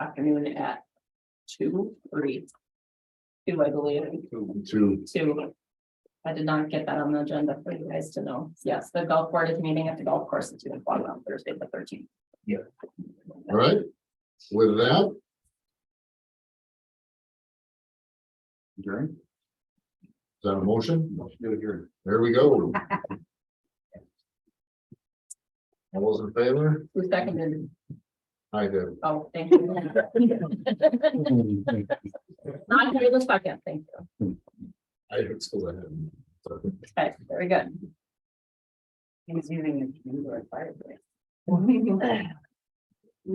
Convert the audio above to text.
afternoon at two, three. Two, I believe, Two. two. I did not get that on the agenda for you guys to know. Yes, the golf board is meeting at the golf course at two o'clock on Thursday, the thirteenth. All right, with that. Adjourn. Is that a motion? There we go. All those in favor? Who seconded? I do. Oh, thank you. Not here the second, thank you. I did still ahead. Okay, very good. He was using the computer fire.